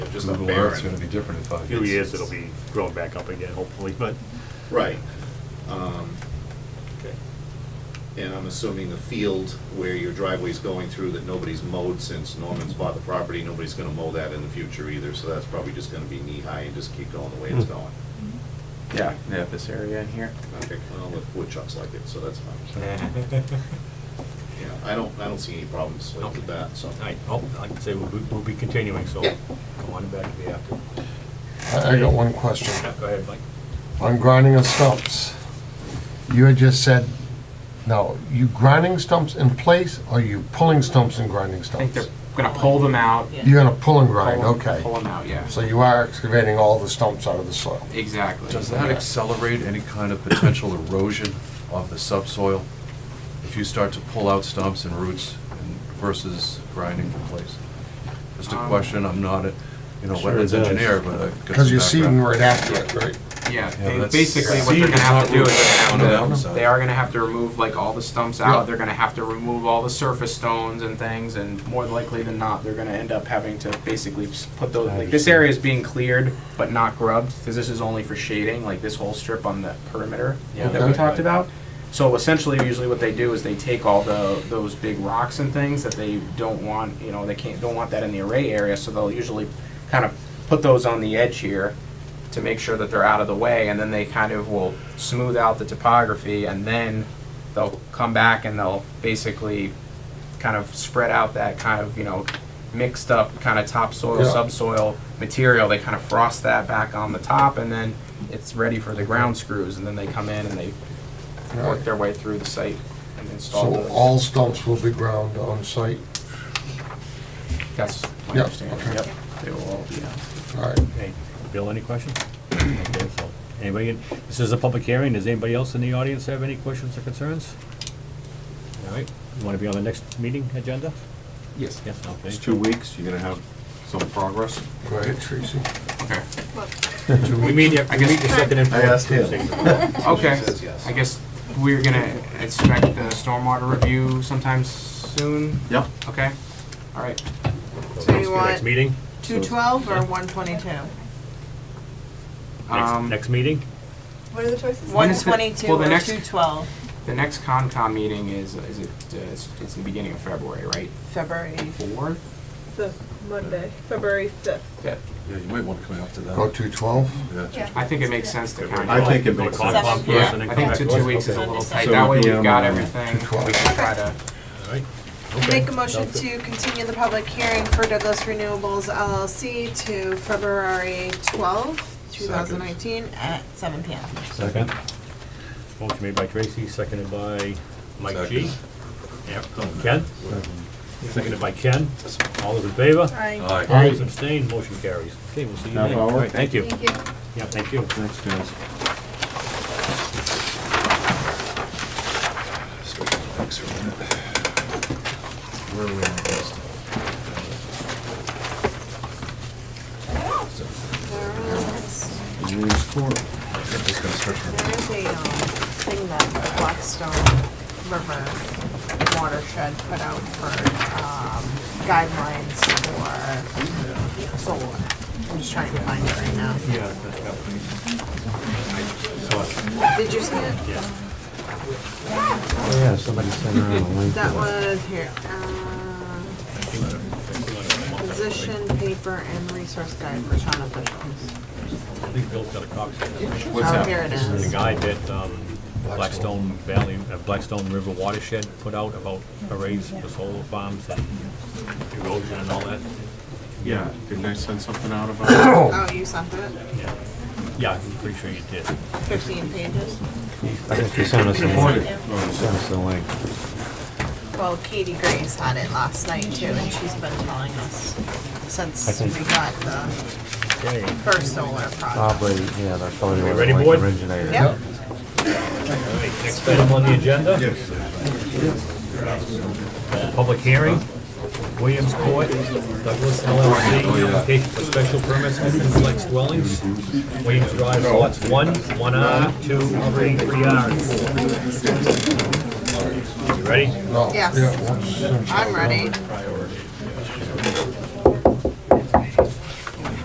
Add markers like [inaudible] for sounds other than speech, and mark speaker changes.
Speaker 1: just a
Speaker 2: Google Earth's
Speaker 1: barren.
Speaker 2: gonna be different in
Speaker 3: A
Speaker 2: five
Speaker 3: few
Speaker 2: years.
Speaker 3: years, it'll be grown back up again, hopefully, but
Speaker 1: Right. Um,
Speaker 4: [laughs]
Speaker 1: And I'm assuming the field where your driveway's going through that nobody's mowed since Norman's bought the property, nobody's gonna mow that in the future either, so that's probably just gonna be knee-high and just keep going the way it's
Speaker 2: Hmm.
Speaker 1: going.
Speaker 5: Yeah, yeah, this area in here.
Speaker 1: Okay, well, the woodchucks like it, so that's fine. Yeah, I don't, I don't see any problems with that, so.
Speaker 4: All right, oh, I can say we'll be, we'll be continuing, so go on back if you have to.
Speaker 6: I I got one question.
Speaker 4: Yeah, Go ahead, Mike.
Speaker 6: On grinding of stumps, you had just said, now, you grinding stumps in place, or you pulling stumps and grinding
Speaker 5: I think
Speaker 6: stumps?
Speaker 5: they're gonna pull them out.
Speaker 6: You're gonna pull and grind,
Speaker 5: Pull 'em-
Speaker 6: okay.
Speaker 5: Pull them out, yeah.
Speaker 6: So you are excavating all the stumps out of the soil.
Speaker 5: Exactly.
Speaker 2: Does that accelerate any kind of potential erosion of the subsoil? If you start to pull out stumps and roots and- versus grinding in place? Just a
Speaker 5: Um,
Speaker 2: question, I'm not a, you know,
Speaker 7: Sure
Speaker 2: wetlands
Speaker 7: does.
Speaker 2: engineer, but I've got
Speaker 6: Because
Speaker 2: some
Speaker 6: you're seeding
Speaker 2: background.
Speaker 6: right after it, right?
Speaker 5: Yeah,
Speaker 2: Yeah,
Speaker 5: they-
Speaker 2: that's-
Speaker 5: basically what they're
Speaker 2: Seed
Speaker 5: gonna
Speaker 2: is
Speaker 5: have to
Speaker 2: not
Speaker 5: do is they're
Speaker 2: rooted
Speaker 5: gonna
Speaker 2: on the
Speaker 5: have to,
Speaker 2: outside.
Speaker 5: they are gonna have to remove like all the stumps
Speaker 6: Yeah.
Speaker 5: out, they're gonna have to remove all the surface stones and things, and more likely than not, they're gonna end up having to basically s- put those, like, this area is being cleared, but not grubbed, cause this is only for shading, like this whole strip on the perimeter that we
Speaker 6: Okay.
Speaker 5: talked about. So essentially, usually what they do is they take all the, those big rocks and things that they don't want, you know, they can't, don't want that in the array area, so they'll usually kind of put those on the edge here to make sure that they're out of the way, and then they kind of will smooth out the topography, and then they'll come back and they'll basically kind of spread out that kind of, you know, mixed up kind of topsoil,
Speaker 6: Yeah.
Speaker 5: subsoil material. They kind of frost that back on the top, and then it's ready for the ground screws, and then they come in and they work their way through the site and install
Speaker 6: So
Speaker 5: those.
Speaker 6: all stumps will be ground on site,
Speaker 5: That's my
Speaker 6: Yep,
Speaker 5: understanding,
Speaker 6: okay.
Speaker 5: yep. They will all be out.
Speaker 6: all right.
Speaker 4: Hey, Bill, any questions? Okay, so, anybody, in- this is a public hearing, does anybody else in the audience have any questions or concerns? All right, you wanna be on the next meeting agenda?
Speaker 5: Yes.
Speaker 4: Yes, okay.
Speaker 7: It's two weeks, you're gonna have some progress.
Speaker 6: Go ahead, Tracy.
Speaker 5: Okay.
Speaker 4: We meet, I guess, the second and fourth.
Speaker 5: Okay,
Speaker 1: says yes.
Speaker 5: I guess we're gonna expect the stormwater review sometime soon?
Speaker 7: Yep.
Speaker 5: Okay, all right.
Speaker 8: So you
Speaker 4: Next
Speaker 8: want
Speaker 4: meeting,
Speaker 8: two twelve or one twenty-two?
Speaker 4: next,
Speaker 5: Um,
Speaker 4: next meeting?
Speaker 8: What are the choices?
Speaker 5: [laughs] When
Speaker 8: One
Speaker 5: is the-
Speaker 8: twenty-two
Speaker 5: well, the
Speaker 8: or
Speaker 5: next-
Speaker 8: two twelve,
Speaker 5: The next Concom meeting is, is it, uh, it's, it's the beginning of February, right?
Speaker 8: February
Speaker 5: Fourth?
Speaker 8: fifth, Monday, February fifth.
Speaker 5: Yeah,
Speaker 2: Yeah, you might wanna come up to that.
Speaker 6: Go two twelve?
Speaker 2: Yeah.
Speaker 5: I think it makes sense to kind of.
Speaker 7: I think it makes
Speaker 4: Go to
Speaker 7: sense.
Speaker 4: Concom first
Speaker 5: Yeah,
Speaker 4: and then
Speaker 5: I
Speaker 4: come
Speaker 5: think
Speaker 4: back
Speaker 5: two,
Speaker 4: to us.
Speaker 5: two weeks is a
Speaker 4: Okay.
Speaker 5: little tight,
Speaker 7: So
Speaker 5: that
Speaker 7: it'd
Speaker 5: way
Speaker 7: be,
Speaker 5: we've
Speaker 7: um,
Speaker 5: got everything, we can try to,
Speaker 4: All right.
Speaker 8: Make a
Speaker 4: Okay.
Speaker 8: motion
Speaker 4: Sounds
Speaker 8: to continue the public hearing for Douglas Renewables LLC to February twelfth, two thousand nineteen, at seven PM.
Speaker 4: Second. Motion made by Tracy, seconded by Mike G. Yep, oh, Ken? Seconded by Ken. All those in favor?
Speaker 8: Aye.
Speaker 2: Aye.
Speaker 4: All those abstained, motion carries. Okay, we'll see you
Speaker 7: Half
Speaker 4: then.
Speaker 7: hour?
Speaker 4: All right, Thank you.
Speaker 8: Thank you.
Speaker 4: Yeah, thank you.
Speaker 7: Thanks, guys.
Speaker 2: Thanks for a minute. Where are we on this?
Speaker 8: There
Speaker 7: Rules court.
Speaker 2: I think this gonna stretch my-
Speaker 8: is a, um, thing that Blackstone River watershed put out for, um, guidelines for solar. I'm just trying to find it right now.
Speaker 4: Yeah.
Speaker 8: Did you see it?
Speaker 7: Oh, yeah, somebody sent her a link.
Speaker 8: That was here. um, Position, paper, and resource guide for town officials.
Speaker 4: I think Bill's got a copy.
Speaker 8: Oh, here it
Speaker 4: The
Speaker 8: is.
Speaker 4: guide that um, Blackstone Valley, uh, Blackstone River Watershed put out about arrays for solar farms and erosion and all that.
Speaker 7: Yeah, didn't I send something out about
Speaker 8: Oh, you sent it?
Speaker 4: Yeah. Yeah, I'm pretty sure you did.
Speaker 8: Fifteen pages?
Speaker 7: I think you sent us a link. Sent us a link.
Speaker 8: Well, Katie Grace had it last night too, and she's been telling us since
Speaker 7: think-
Speaker 8: we got the
Speaker 4: Okay,
Speaker 8: first solar project.
Speaker 7: Probably, yeah, that's probably
Speaker 4: We
Speaker 7: where
Speaker 4: ready,
Speaker 7: the
Speaker 4: boy?
Speaker 7: link originated.
Speaker 8: Yep.
Speaker 4: all right, next item on the agenda? Public hearing, Williams Court, Douglas LLC, application for special permits and complex dwellings, Williams Drive, lots one, one R, two, three, three R. and four. You ready?
Speaker 6: No.
Speaker 8: Yes.
Speaker 6: Yeah, once-
Speaker 8: I'm ready.
Speaker 4: All right,